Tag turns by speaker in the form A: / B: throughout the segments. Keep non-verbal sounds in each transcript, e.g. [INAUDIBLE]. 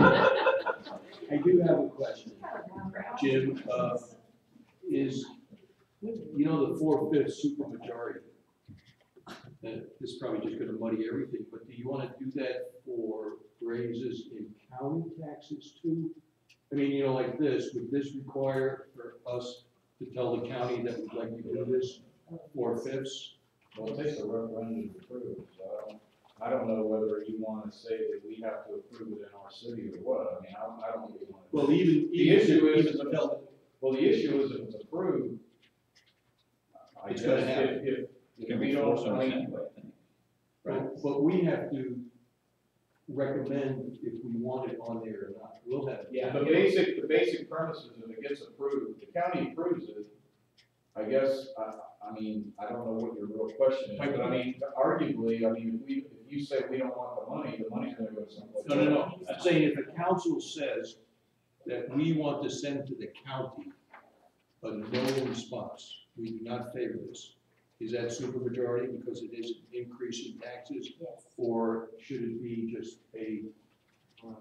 A: I do have a question. Jim, uh, is, you know, the four-fifths supermajority? That this is probably just gonna muddy everything, but do you wanna do that for raises in county taxes too? I mean, you know, like this, would this require for us to tell the county that we'd like to do this four-fifths?
B: Well, it takes a referendum to approve, so I don't, I don't know whether you wanna say that we have to approve it in our city or what, I mean, I don't, I don't really wanna.
A: Well, even,
B: The
A: even if
B: issue
A: even
B: is, if it's-
A: tell-
B: well, the issue is if it's approved. I
A: It's
B: guess
A: gonna
B: if,
A: happen.
B: if,
C: You
B: if
C: can
B: we
C: be forced
B: don't,
C: on
B: I
C: us
B: mean,
C: anyway, I think.
A: But, but we have to recommend if we want it on there or not, we'll have.
B: Yeah, the basic, the basic premise is if it gets approved, if the county approves it, I guess, I, I mean, I don't know what your real question is, but I mean, arguably, I mean, if we, if you say we don't want the money, the money's gonna go someplace.
A: No, no, no, I'm saying if the council says that we want to send to the county a no response, we do not favor this, is that supermajority because it is an increase in taxes?
D: Yes.
A: Or should it be just a, um,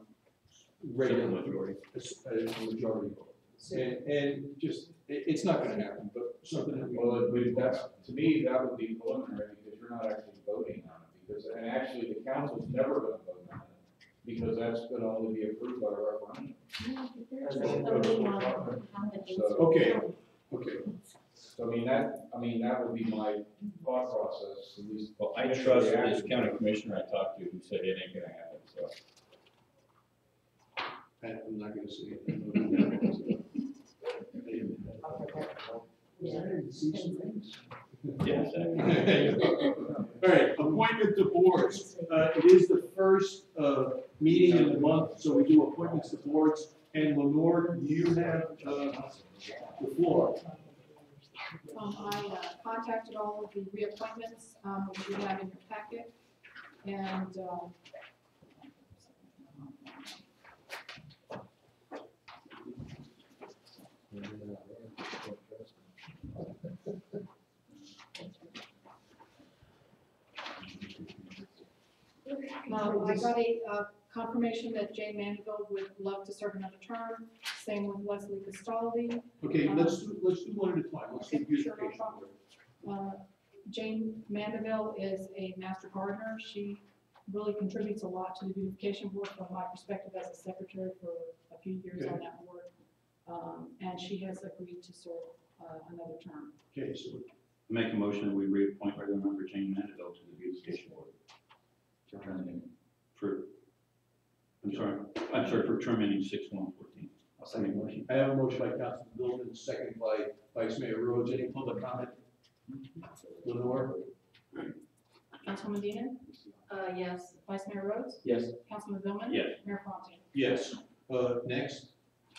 A: regular,
C: Supermajority.
A: a s- a majority vote? And, and just, it, it's not gonna happen, but something that we.
B: Well, it would- that's, to me, that would be preliminary, because you're not actually voting on it, because, and actually, the council's never gonna vote on it, because that's gonna only be approved by a referendum. So-
A: Okay, okay.
B: So, I mean, that, I mean, that would be my thought process, at least.
C: Well, I trust this county commissioner I talked to who said it ain't gonna happen, [LAUGHS] so.
A: I- I'm not gonna say it.
C: Yes.
A: All right, appointment to boards. Uh, it is the first, uh, meeting in the month, so we do appointments to boards. And Lenore, you have, uh, the floor.
E: Um, I uh, contacted all of the reappointments, um, which you have in your packet, and, um, um, I got a uh, confirmation that Jane Mandeville would love to serve another term, same with Leslie Castaldi.
A: Okay, let's do, let's do one at a time. Let's do
E: Okay, sure, no
A: beautification.
E: problem. Uh, Jane Mandeville is a master gardener. She really contributes a lot to the beautification board from my perspective as a secretary for a few years on that board. Um, And she has agreed to serve uh, another term.
A: Okay, so,
C: [LAUGHS] Make a motion that we reappoint regular member Jane Mandeville to the beautification board. For term ending. For, I'm sorry, I'm sorry, for term ending six one fourteen. I'll second the motion.
A: I have a motion by Councilman Golden, second by Vice Mayor Rhodes. Any public comment? Lenore?
E: Councilwoman Dean? Uh, yes. Vice Mayor Rhodes?
C: Yes.
E: Councilman Billman?
C: Yes.
E: Mayor Fontaine?
A: Yes. Uh, next?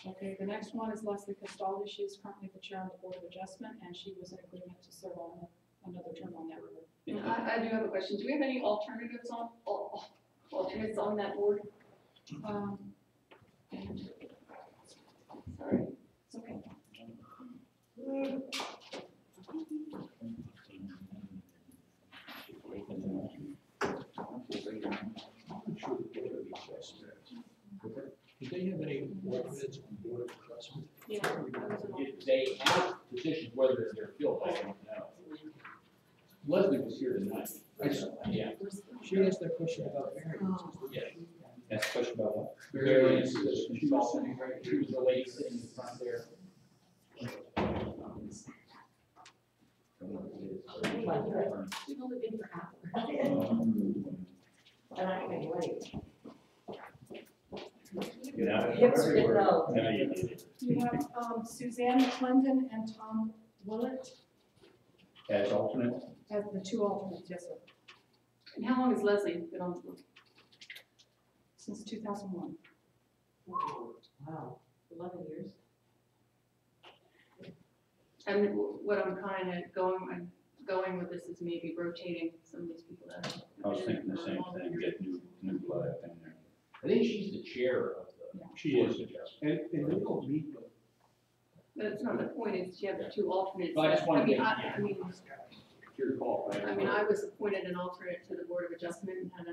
E: Okay, the next one is Leslie Castaldi. She is currently the chair on the Board of Adjustment, and she was in agreement to serve on another term on that board.
F: I, I do have a question. Do we have any alternatives on, al- alternates on that board?
E: Um,
F: Sorry.
E: It's okay.
A: Did they have any alternates on board of adjustment?
E: Yeah.
G: If they have positions, whether they're filled, I don't know. Leslie was here tonight.
A: I just,
G: Yeah.
A: she asked that question about
F: Um,
A: variance.
C: That's a question about what?
G: Various positions, she was sitting right, she was the lady sitting in front there.
F: We've only been for half.
C: Yeah. Now you did it.
E: You have um, Suzanne Clendon and Tom Willett
C: As alternate?
E: as the two alternates, yes, sir,
F: And how long has Leslie been on the board?
E: since two thousand one.
D: Wow, eleven years.
F: And wh- what I'm kind of going, I'm going with this is maybe rotating some of these people that. have
C: I was
F: been
C: thinking the
F: for a
C: same
F: long
C: thing,
F: period.
C: get new, new blood up in there.
G: I think she's the chair of the.
A: She is.
G: Board of Adjustment.
A: And, and they don't meet, but
F: But it's not the point, it's you have the two alternates.
G: But I just wanted to
F: mean,
G: make-
F: I I mean,
A: your call, right?
F: I mean, I was appointed an alternate to the Board of Adjustment and